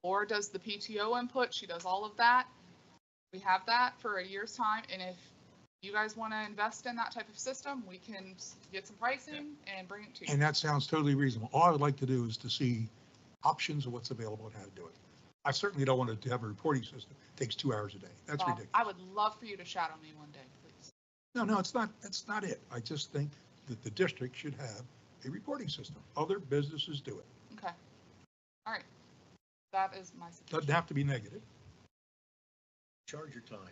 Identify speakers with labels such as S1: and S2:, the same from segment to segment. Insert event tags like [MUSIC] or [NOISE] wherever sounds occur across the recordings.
S1: or does the PTO input. She does all of that. We have that for a year's time, and if you guys want to invest in that type of system, we can s- get some pricing and bring it to you.
S2: And that sounds totally reasonable. All I would like to do is to see options of what's available and how to do it. I certainly don't want to have a reporting system. that Takes two hours a day. That's
S1: Bob,
S2: ridiculous.
S1: I would love for you to shadow me one day, please.
S2: No, no, it's not, that's not it. I just think that the district should have a reporting system. Other businesses do it.
S1: Okay. All right. That is my
S2: Doesn't
S1: suggestion.
S2: have to be negative.
S3: charge your time.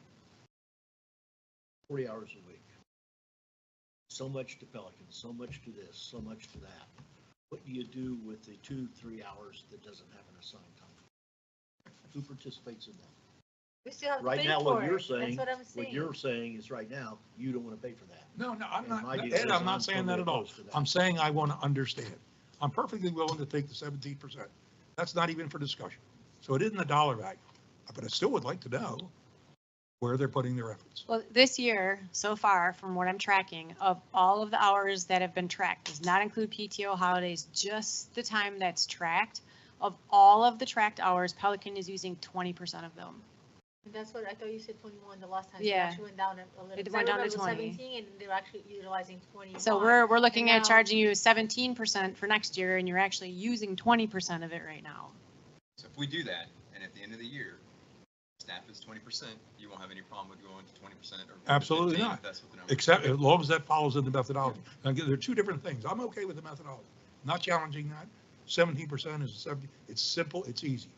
S3: Forty hours a week. So much to Pelican, so much to this, so much to that. What do you do with the two, three hours that doesn't have an assigned time? Who participates in that?
S4: We still have to
S3: Right
S4: pay
S3: now, what
S4: for
S3: you're
S4: it. That's
S3: saying,
S4: what I'm
S3: What
S4: saying.
S3: you're saying is right now, you don't want to pay for that.
S2: No, no, I'm
S3: And
S2: not,
S3: my deal
S2: Ed,
S3: is
S2: I'm
S3: I'm
S2: not saying that
S3: totally
S2: at all.
S3: opposed to that.
S2: I'm saying I want to understand. I'm perfectly willing to take the seventeen percent. That's not even for discussion. So it isn't a dollar value, but I still would like to know where they're putting their efforts.
S5: Well, this year, so far, from what I'm tracking, of all of the hours that have been tracked, does not include PTO holidays, just the time that's tracked. Of all of the tracked hours, Pelican is using 20% of them.
S4: That's what, I thought you said twenty-one the last time. It
S5: Yeah.
S4: actually went down a a little.
S5: It
S4: 'cause I
S5: went down to
S4: remember
S5: 20.
S4: Seventeen, and they're actually utilizing twenty.
S5: So we're, we're looking
S4: And
S5: at
S4: now-
S5: charging you 17% for next year and you're actually using 20% of it right now.
S6: So if we do that, and at the end of the year, staff is twenty percent, you won't have any problem with going to twenty percent or.
S2: Absolutely
S6: 15,
S2: not.
S6: if That's what the number. is.
S2: Except, as long as that follows in the methodology. Now, again, there are two different things. I'm okay with the methodology, not challenging that. Seventeen percent is seventy, it's simple, it's easy.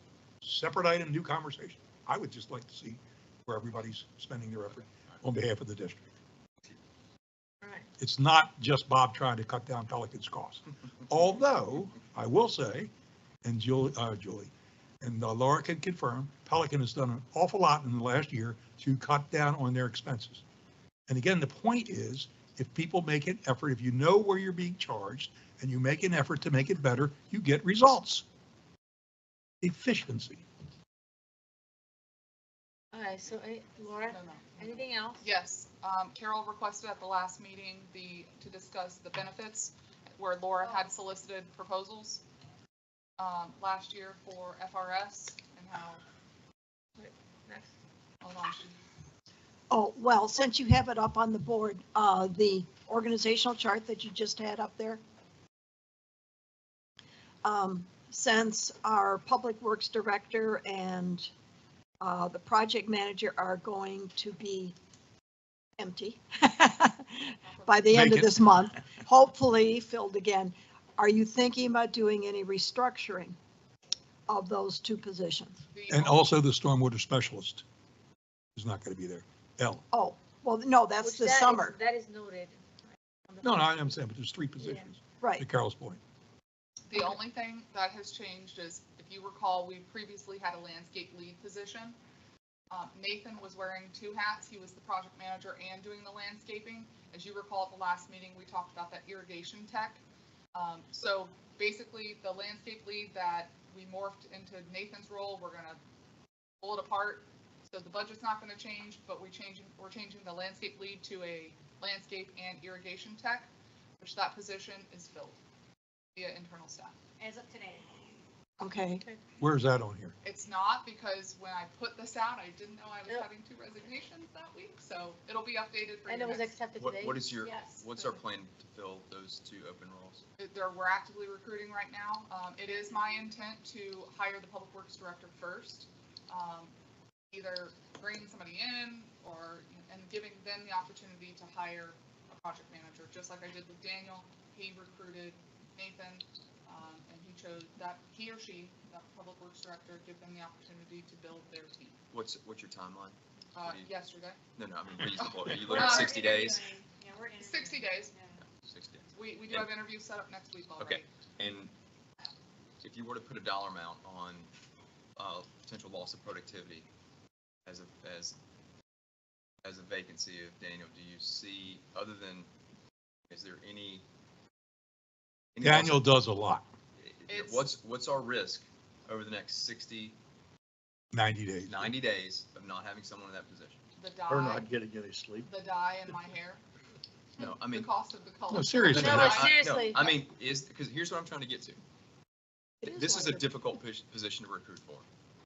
S2: Separate item, new conversation. I would just like to see where everybody's spending their effort on behalf of the district.
S4: Right.
S2: It's not just Bob trying to cut down Pelican's costs. Although, I will say, and Julie, uh, Julie, and uh, Laura can confirm, Pelican has done an awful lot in the last year to cut down on their expenses. And again, the point is, if people make an effort, if you know where you're being charged and you make an effort to make it better, you get results. Efficiency.
S4: All right, so any-
S1: No,
S4: Laura,
S1: no.
S4: anything else?
S1: Yes, um, Carol requested at the last meeting the, to discuss the benefits where Laura had solicited proposals um, last year for FRS and how,
S4: Next.
S1: hold on, she-
S7: Oh, well, since you have it up on the board, uh, the organizational chart that you just had up there. Um, since our Public Works Director and, uh, the project manager are going to be empty [LAUGHS] by the end of
S2: Vacant.
S7: this month, hopefully filled again, are you thinking about doing any restructuring of those two positions?
S1: the.
S2: And also the stormwater specialist is not going to be there. L.
S7: Oh, well, no, that's
S4: Which
S7: this
S4: that is-
S7: summer,
S4: That is noted.
S2: No, no, I understand, but there's three positions,
S7: right.
S2: to Carol's point.
S1: The only thing that has changed is, if you recall, we previously had a landscape lead position. Um, Nathan was wearing two hats. He was the project manager and doing the landscaping. As you recall, at the last meeting, we talked about that irrigation tech. Um, so basically, the landscape lead that we morphed into Nathan's role, we're gonna pull it apart. So the budget's not gonna change, but we changing, we're changing the landscape lead to a landscape and irrigation tech, which that position is filled via internal staff.
S5: As of today.
S7: Okay,
S2: Where is that on here?
S1: It's not because when I put this out, I didn't know I was
S4: Yep.
S1: having two resignations that week, so it'll be updated for you.
S4: And it was
S1: next-
S4: accepted
S6: What,
S4: today.
S6: what is your,
S4: Yes.
S6: what's our plan to fill those two open roles?
S1: There, we're actively recruiting right now. Um, it is my intent to hire the public works director first. Um, either bringing somebody in or, and giving them the opportunity to hire a project manager, just like I did with Daniel. He recruited Nathan, um, and he chose that, he or she, that public works director, give them the opportunity to build their team.
S6: What's, what's your timeline?
S1: Uh,
S6: What do you-
S1: yesterday.
S6: No, no, I mean reasonable. Are you
S5: Uh,
S6: looking at sixty days?
S1: 60 days.
S6: Sixty days.
S1: We, we do have interviews set up next week already.
S6: Okay. And if you were to put a dollar amount on, uh, potential loss of productivity as a, as, as a vacancy of Daniel, do you see, other than, is there any? any loss of-
S2: Daniel does a lot,
S1: It's-
S6: What's, what's our risk over the next 60,
S2: 90 days.
S6: 90 days of not having someone in that position?
S1: The
S3: Or
S1: dye,
S3: not getting any sleep.
S1: the dye in my hair,
S6: No, I
S1: the
S6: mean.
S1: cost of the color.
S2: No, seriously.
S4: No,
S6: I-
S4: but
S6: I-
S4: seriously.
S6: I mean, is, because here's what I'm trying to get to.
S7: It is
S6: This is a
S7: wonderful.
S6: difficult pos- position to recruit for.